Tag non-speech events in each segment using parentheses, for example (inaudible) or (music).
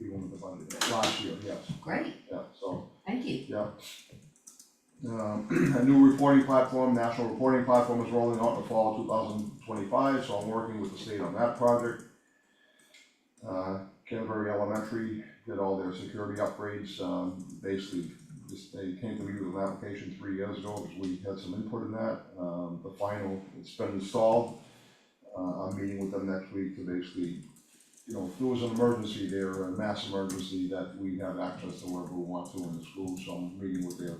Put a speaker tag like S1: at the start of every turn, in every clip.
S1: we won the funding, last year, yes,
S2: Great,
S1: yeah, so,
S2: thank you.
S1: yeah. Um, (clears throat) a new reporting platform, national reporting platform is rolling out in the fall two thousand twenty-five, so I'm working with the state on that project. Uh, Canterbury Elementary did all their security upgrades, um, basically, just, they came to me with an application three years ago, because we had some input in that. Um, the final, it's been installed, uh, I'm meeting with them next week to basically, you know, if there was an emergency there, a mass emergency, that we have access to wherever we want to in the school, so I'm meeting with their,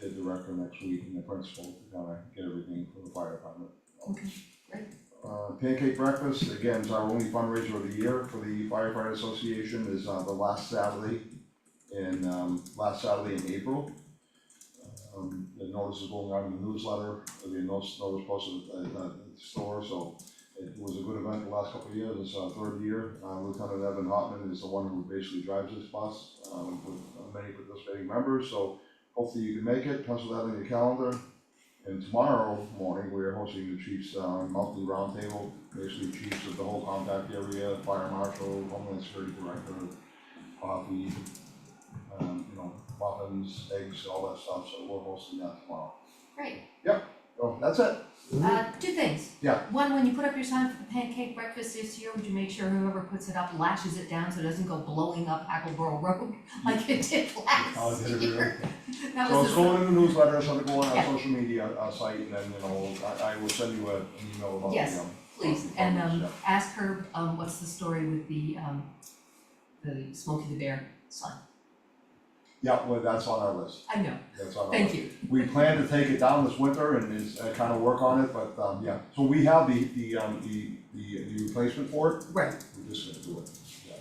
S1: their director next week and the principal to kind of get everything for the fire department.
S2: Okay, great.
S1: Uh, pancake breakfast, again, is our only fundraiser of the year for the firefighter association, is, uh, the last Saturday in, um, last Saturday in April. Um, the notice is going out in the newsletter, there'll be a notice, notice posted at, at the store, so it was a good event the last couple of years, it's our third year, uh, Lieutenant Evan Hotman is the one who basically drives this bus, um, with many participating members, so hopefully you can make it, pencil that in your calendar. And tomorrow morning, we are hosting the chiefs, uh, monthly roundtable, basically chiefs of the whole compact area, fire marshal, homeland security director, coffee, um, you know, muffins, eggs, all that stuff, so we're hosting that tomorrow.
S2: Great.
S1: Oh, that's it,
S2: Uh, two things.
S1: Yeah.
S2: One, when you put up your sign for the pancake breakfast this year, would you make sure whoever puts it up lashes it down so it doesn't go blowing up Hackleboro (laughs) Road like it did
S1: I'll
S2: last
S1: get it
S2: year? (laughs) That
S1: So
S2: was
S1: it's
S2: the-
S1: going in the newsletter, it's gonna go on our
S2: Yeah.
S1: social media, uh site, and then, you know, I, I will send you a- an email about the,
S2: Yes.
S1: um,
S2: Please, and
S1: Comments,
S2: um
S1: yeah.
S2: ask her um what's the story with the um the Smokey the Bear sign.
S1: yeah, well, that's on our list,
S2: I know,
S1: that's on our list.
S2: thank you.
S1: We plan to take it down this winter and is, uh, kind of work on it, but, um, yeah, so we have the, the, um, the, the, the replacement for it,
S2: Right,
S1: we're just gonna do it. Yeah.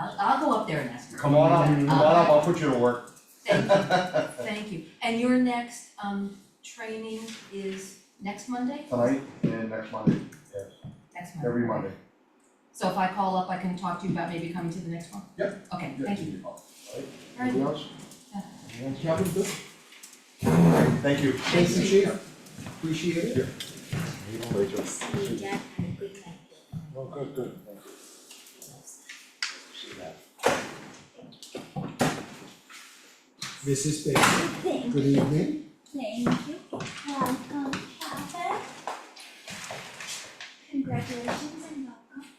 S2: I'll I'll go up there and ask her. Uh,
S1: Come on up, come on up, I'll put you to work.
S2: Thank you, thank you. And your next um training is next Monday?
S1: Tonight and next Monday,
S2: Next Monday.
S1: every Monday.
S2: So if I call up, I can talk to you about maybe coming to the next one? Yep. Okay,
S1: Yeah,
S2: thank
S1: give
S2: you.
S1: me a call. Alright,
S2: Alright.
S1: anything else?
S2: Yeah.
S1: Anything else?
S3: Captain, good.
S1: Thank you.
S3: Thank you,
S2: Thanks.
S3: chief. Appreciate it.
S4: See, Dad had a good night.
S3: Well, good, good. Mrs. Baker,
S4: Thank,
S3: good evening.
S4: thank you. Welcome, Papa. Congratulations and welcome.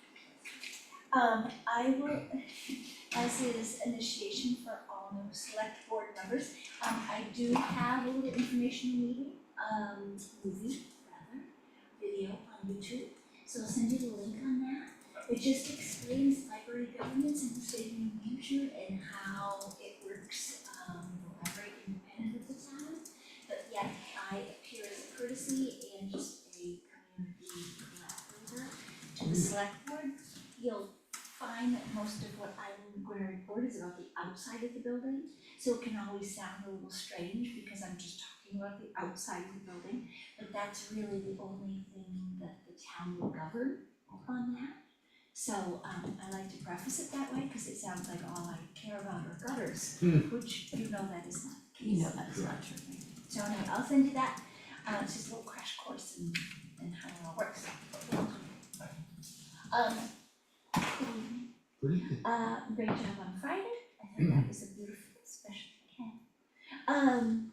S4: Um, I will, (laughs) as is initiation for all new select board members, um, I do have a little informational meeting, um, movie, rather, video on YouTube. So I'll send you the link on that. It just explains library governance in the state of New Hampshire and how it works, um, the library independent of the town. But yet I appear as a courtesy and just a community collaborator to the select board. You'll find that most of what I'm going to report is about the outside of the building. So it can always sound a little strange because I'm just talking about the outside of the building. But that's really the only thing that the town will govern on that. So um I like to preface it that way because it sounds like all I care about are gutters,
S3: Hmm.
S4: which you know that is not the case.
S2: You know that is not true.
S4: So anyway, I'll send you that, uh, it's just a little crash course and, and how it all works. Um,
S3: Good evening.
S4: uh, great job on Friday, I think that was a beautiful special weekend. Um,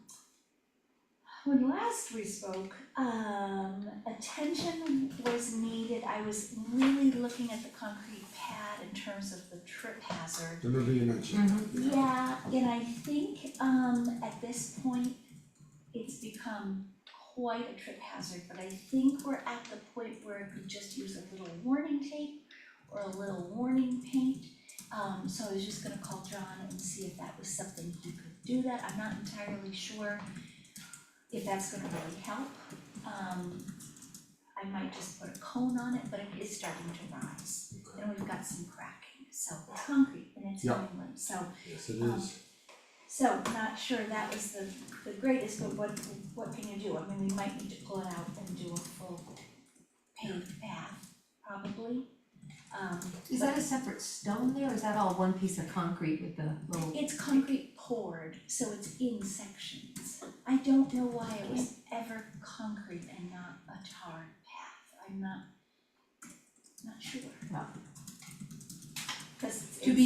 S4: when last we spoke, um, attention was needed, I was really looking at the concrete pad in terms of the trip hazard
S3: Remember you mentioned.
S2: Mhm.
S4: yeah, and I think um at this point, it's become quite a trip hazard, but I think we're at the point where it could just use a little warning tape or a little warning paint. Um so I was just gonna call John and see if that was something he could do that, I'm not entirely sure if that's gonna really help. Um I might just put a cone on it, but it is starting to rise, and we've got some cracking, so it's concrete and it's New
S3: Yeah.
S4: England, so
S3: Yes, it is.
S4: so not sure that was the the greatest, but what what can you do? I mean, we might need to pull it out and do a full paved path, probably. Um
S2: Is that a separate stone there, or is that all one piece of concrete with the little?
S4: it's concrete poured, so it's in sections. I don't know why it was ever concrete and not a tarred path. I'm not not sure.
S2: Well.
S4: Cause it's
S2: To be